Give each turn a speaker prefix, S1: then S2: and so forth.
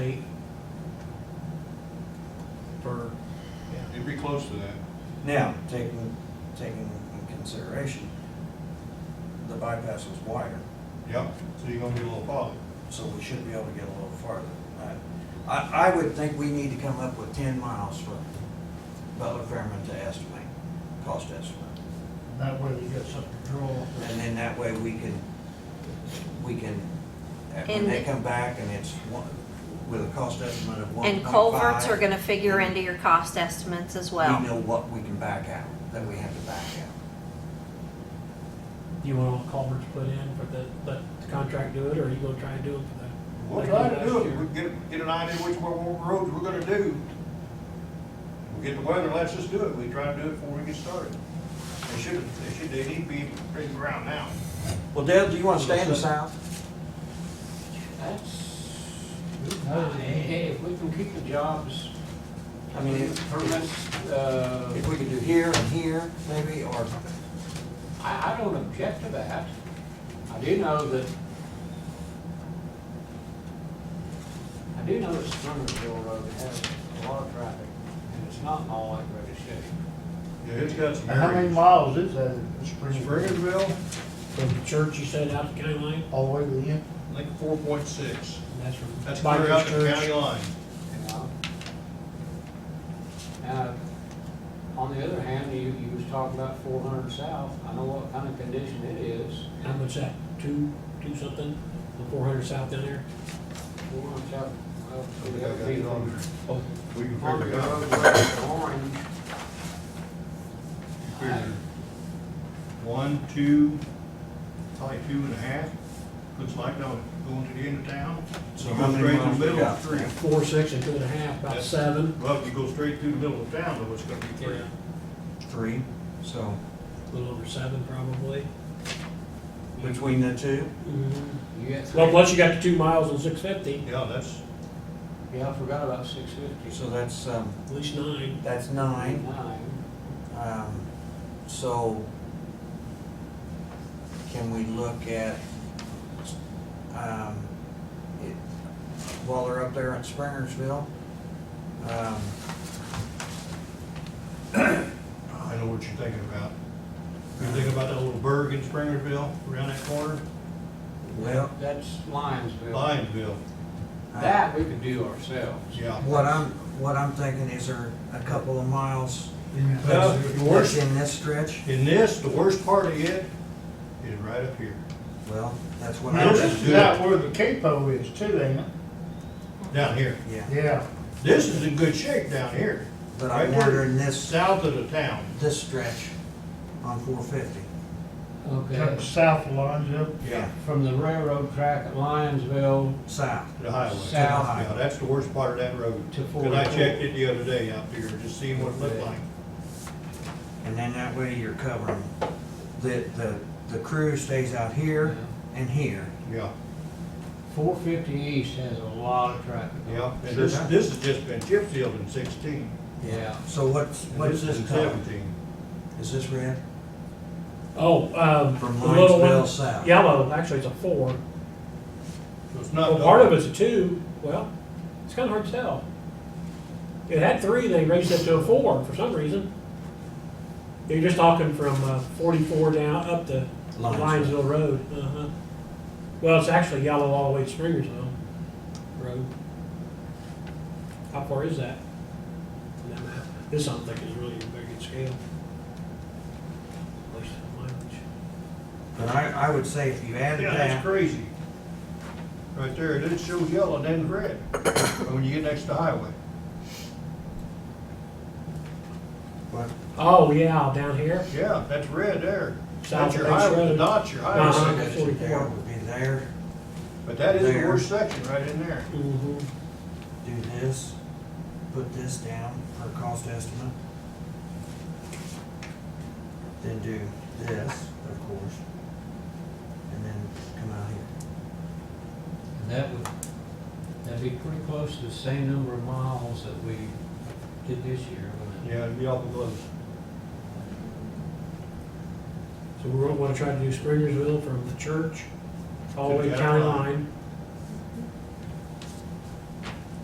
S1: It'd be close to that.
S2: Now, taking, taking in consideration, the bypass was wider,
S1: Yep, so you're gonna be a little farther.
S2: so we should be able to get a little farther than that. I, I would think we need to come up with ten miles from Butler Fairman to estimate, cost estimate.
S3: That way we get some control.
S2: And then that way we can, we can, when
S4: And-
S2: they come back and it's one, with a cost estimate of one
S4: And
S2: point five.
S4: culverts are gonna figure into your cost estimates as
S2: We
S4: well.
S2: know what we can back out, that we have to back out.
S5: Do you want all culverts put in for the, let the contract do it, or are you gonna try and do it for the?
S1: We'll
S5: like
S1: try
S5: last
S1: to do it,
S5: year?
S1: we get, get an idea which one- what roads we're gonna do. We get the weather, let's just do it, we try to do it before we get started. They should, they should, they need to be breaking ground now.
S2: Well, Dale, do you wanna stay in the south?
S6: That's, hey, if we can keep the jobs,
S2: I mean, if-
S6: permits, uh,
S2: If we could do here and here, maybe, or,
S6: I, I don't object to that. I do know that, I do know that Springersville Road has a lot of traffic, and it's not in all that great a shape.
S1: Yeah, it's got some
S3: And How many
S1: areas.
S3: miles is that in Springfield?
S1: Springersville,
S5: From the church you said out to county line,
S3: All the way to the end?
S1: I think four point six.
S5: and that's from.
S1: That's clear out the
S5: Church.
S1: county line.
S6: you know? Now, on the other hand, you, you was talking about four hundred south, I know what kind of condition it is.
S5: How much that, two, two something, the four hundred south down there?
S6: Four hundred south, well,
S1: I
S6: it
S1: think I got it on there.
S5: Oh,
S1: We can
S6: On the
S1: figure it out.
S6: road, that's orange,
S1: Figure One, two, probably two and a half, looks like, no, going to the end of town.
S2: So
S1: You
S2: how
S1: go
S2: many
S1: straight through
S2: miles
S1: the
S2: we
S1: middle
S2: got?
S1: of the street.
S5: Four, six, and two and a half, about
S1: Yes.
S5: seven.
S1: Well, if you go straight through the middle of town, though, it's gonna be three.
S5: Yeah,
S2: three, so,
S5: a little over seven probably.
S2: between the two?
S5: Mhm.
S2: Mm-hmm.
S6: you get three.
S5: Well, once you got to two miles and six fifty,
S1: Yeah, that's,
S6: Yeah, I forgot about six fifty.
S2: So that's, um,
S5: at least nine.
S2: that's nine,
S6: Nine.
S2: um, so can we look at, um, it, while they're up there in Springersville? Um,
S1: I know what you're thinking about. You're thinking about that little burg in Springerville, around that corner,
S2: well,
S6: That's Lionsville.
S1: Lionsville,
S2: I-
S6: That we could do ourselves.
S1: yeah.
S2: what I'm, what I'm thinking is there a couple of miles
S1: Well,
S2: that's
S1: the worst-
S2: in this stretch?
S1: In this, the worst part of it is right up here,
S2: Well, that's what
S3: Now,
S2: I'm,
S3: this is out where the capo is too, ain't it?
S1: down here.
S2: yeah,
S3: Yeah.
S1: This is in good shape down here,
S2: but
S1: Right
S2: I'm
S1: there.
S2: wondering this.
S1: south of the town.
S2: this stretch on four fifty.
S6: Okay.
S3: From south of Lonzo.
S6: From the railroad track at Lionsville
S2: South.
S1: To the highway.
S6: South.
S1: Yeah, that's the worst part of that road.
S6: To
S1: 'Cause I
S6: 44.
S1: checked it the other day out there, just seeing what it looked like.
S2: And then that way you're covering, the, the, the crew stays out here and here.
S1: Yeah,
S6: four fifty east has a lot of traffic. on it.
S1: yeah. And this,
S2: Sure.
S1: this has just been chip sealed in sixteen.
S6: Yeah.
S2: So what's,
S1: and
S2: what's
S1: in
S2: this color?
S1: Seventeen.
S2: Is this red?
S5: Oh, um,
S2: From
S5: the little
S2: Linesville
S5: one,
S2: south?
S5: yellow, actually it's a four.
S1: So it's not.
S5: Well, part of
S1: dark.
S5: it's a two, well, it's kinda hard to tell. It had three, they raised it to a four for some reason. You're just talking from uh, forty-four down up to
S2: Linesville.
S5: Lionsville Road, uh-huh. Well, it's actually yellow all the way to Springersville Road. How far is that? on that map? This, I don't think, is really a very good scale. At least in mileage.
S2: But I, I would say if you added
S1: Yeah, that's
S2: that,
S1: crazy. Right there, it shows yellow and then red, when you get next to the highway.
S2: what,
S5: Oh, yeah, down here?
S1: Yeah, that's red there.
S5: South
S1: That's
S5: of
S1: your
S5: Bates
S1: highway, the
S5: Road.
S1: dot's your
S5: Uh-huh.
S1: highway.
S2: that you there would be there,
S1: But that is the
S2: There.
S1: worst section, right in there.
S5: Mm-hmm.
S2: do this, put this down for cost estimate. Then do this, of course, and then come out here.
S6: And that would, that'd be pretty close to the same number of miles that we did this year, wouldn't
S1: Yeah, it'd be awful close.
S5: So we're gonna wanna try to do Springersville from the church all the way to county line,